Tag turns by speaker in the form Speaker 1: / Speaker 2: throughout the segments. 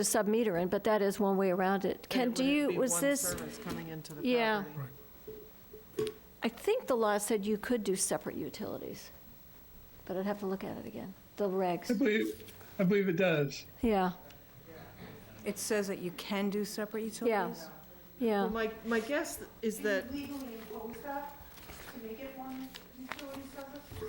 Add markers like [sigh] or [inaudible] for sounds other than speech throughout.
Speaker 1: the sub-meter in, but that is one way around it. Ken,
Speaker 2: And it
Speaker 1: do
Speaker 2: wouldn't
Speaker 1: you,
Speaker 2: be
Speaker 1: was
Speaker 2: one
Speaker 1: this,
Speaker 2: service coming into the
Speaker 1: Yeah.
Speaker 2: property.
Speaker 1: I think the law said you could do separate utilities, but I'd have to look at it again, the
Speaker 3: I
Speaker 1: regs.
Speaker 3: believe, I believe it does.
Speaker 1: Yeah,
Speaker 4: It says that you can do separate
Speaker 1: yeah,
Speaker 4: utilities?
Speaker 1: yeah.
Speaker 2: Well, my, my guess is that,
Speaker 5: legally impose that to make it one utility service? or-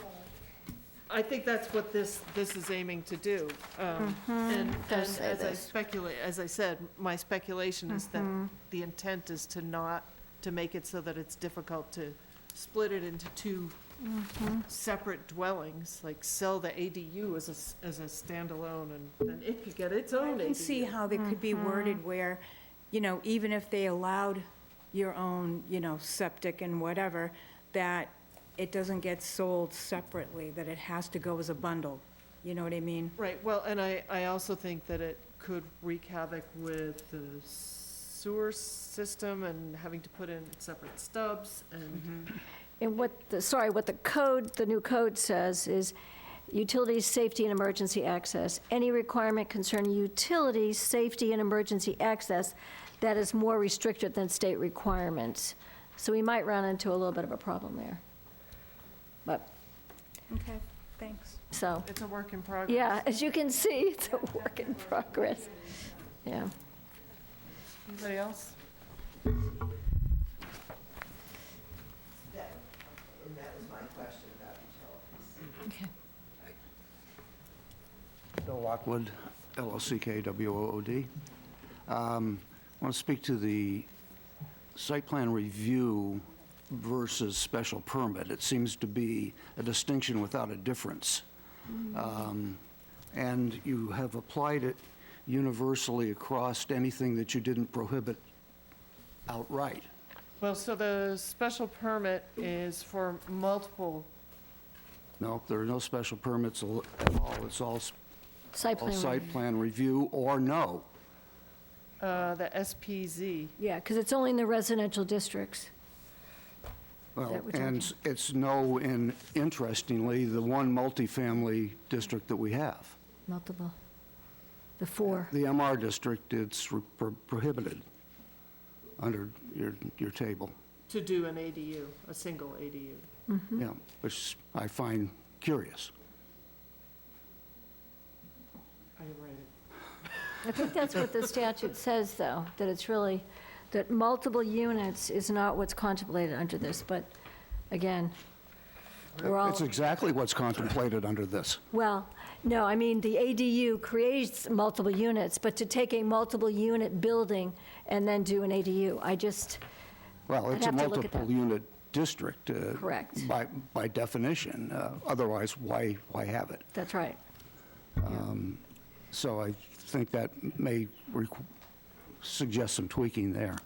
Speaker 2: I think that's what this, this is aiming to do. Um, And, and
Speaker 1: does Mm-hmm. say
Speaker 2: as I
Speaker 1: this. Mm-hmm.
Speaker 2: speculate, as I said, my speculation is that the intent is to not, to make it so that it's difficult to split it into two
Speaker 1: Mm-hmm.
Speaker 2: separate dwellings, like sell the ADU as a, s- as a standalone, and then it could get its
Speaker 4: I
Speaker 2: own
Speaker 4: can see
Speaker 2: ADU.
Speaker 4: how they could be worded where, you know, even if they allowed your own, you know, septic and whatever, that it doesn't get sold separately, that it has to go as a bundle. You know what I mean?
Speaker 2: Right, well, and I, I also think that it could wreak havoc with the sewer system and having to put in separate stubs and,
Speaker 1: And what, the sorry, what the code, the new code says is utilities, safety, and emergency access. Any requirement concerning utilities, safety, and emergency access that is more restricted than state requirements. So we might run into a little bit of a problem there. But,
Speaker 4: Okay, thanks.
Speaker 1: so,
Speaker 2: it's a work in progress.
Speaker 1: yeah, as you can see, [laughs] it's a work in progress. Yeah.
Speaker 2: Anybody else?
Speaker 1: Okay.
Speaker 6: Bill Lockwood, LLCKWOOD. Um, I want to speak to the site plan review versus special permit. It seems to be a distinction without a difference. Um, And you have applied it universally across anything that you didn't prohibit outright.
Speaker 2: Well, so the special permit is for multiple,
Speaker 6: No, there are no special permits al- at all. It's all s-
Speaker 1: Site
Speaker 6: all
Speaker 1: plan.
Speaker 6: site plan review or no.
Speaker 2: uh, the SPZ.
Speaker 1: Yeah, because it's only in the residential districts.
Speaker 6: Well,
Speaker 1: that what you're
Speaker 6: and s- it's no, in interestingly, the one multifamily district that we have.
Speaker 1: Multiple. The four.
Speaker 6: The MR district, it's re- pro- prohibited under your, your table.
Speaker 2: to do an ADU, a single ADU.
Speaker 1: Mm-hmm.
Speaker 6: Yeah, which I find curious.
Speaker 2: I didn't write it.
Speaker 1: I think that's what
Speaker 6: [laughs]
Speaker 1: the statute says, though, that it's really, that multiple units is not what's contemplated under this, but again, we're all,
Speaker 6: It's exactly what's contemplated under this.
Speaker 1: well, no, I mean, the ADU creates multiple units, but to take a multiple unit building and then do an ADU, I just,
Speaker 6: Well,
Speaker 1: I'd
Speaker 6: it's a
Speaker 1: have to look at that.
Speaker 6: multiple-unit district. uh,
Speaker 1: Correct.
Speaker 6: By, by definition. Uh, Otherwise, why, why have it?
Speaker 1: that's right.
Speaker 6: So I think that may requ- suggest some tweaking there.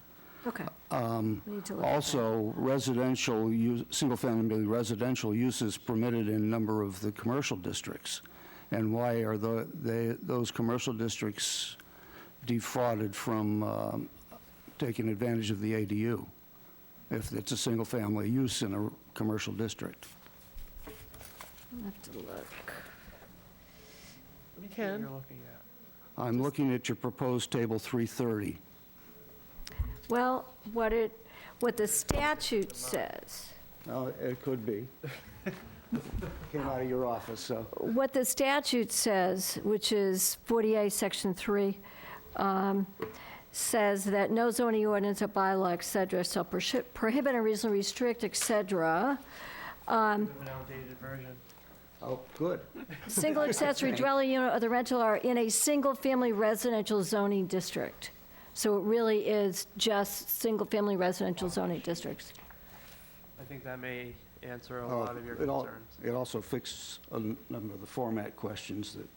Speaker 1: Okay. We need to look at that.
Speaker 6: Also, residential, use- single-family residential use is permitted in a number of the commercial districts. And why are the, they, those commercial districts defrauded from um, taking advantage of the ADU? If it's a single-family use in a commercial district?
Speaker 1: I'll have to look.
Speaker 2: Ken,
Speaker 6: I'm looking at your proposed table 330.
Speaker 1: Well, what it, what the statute says,
Speaker 6: Oh, it could [laughs] be. Came out of your office, so.
Speaker 1: what the statute says, which is 48, Section 3, um, says that no zoning ordinance or bylaw, et cetera, shall prohi- prohibit, unreasonably restrict, et cetera,
Speaker 7: An outdated version.
Speaker 6: Oh, good.
Speaker 1: single accessory dwelling unit or the rental are in a single-family residential zoning district. So it really is just single-family residential zoning districts.
Speaker 7: I think that may answer a
Speaker 6: Oh,
Speaker 7: lot of your
Speaker 6: it al-
Speaker 7: concerns.
Speaker 6: It also fixes a n- number of the format questions that,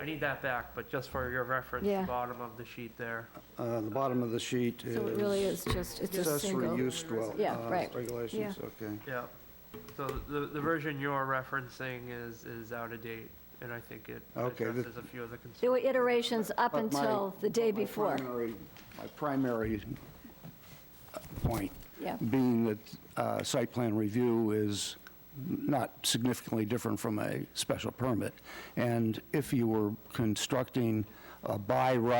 Speaker 7: I need that back, but just for your reference,
Speaker 1: Yeah.
Speaker 7: the bottom of the sheet there.
Speaker 6: uh, the bottom of the sheet is.
Speaker 1: So it really is just, it's a
Speaker 6: Accessory
Speaker 1: single.
Speaker 6: use dwell.
Speaker 1: Yeah,
Speaker 6: uh,
Speaker 1: right.
Speaker 6: Regulations,
Speaker 1: Yeah.
Speaker 6: okay.
Speaker 7: Yeah. So the, the version you're referencing is, is out of date, and I think it
Speaker 6: Okay, the-
Speaker 7: addresses a few of the concerns.
Speaker 1: There were iterations up
Speaker 6: But my-
Speaker 1: until the day
Speaker 6: but my
Speaker 1: before.
Speaker 6: primary- My primary uh, point
Speaker 1: Yeah.
Speaker 6: being that uh, site plan review is not significantly different from a special permit. And if you were constructing a by right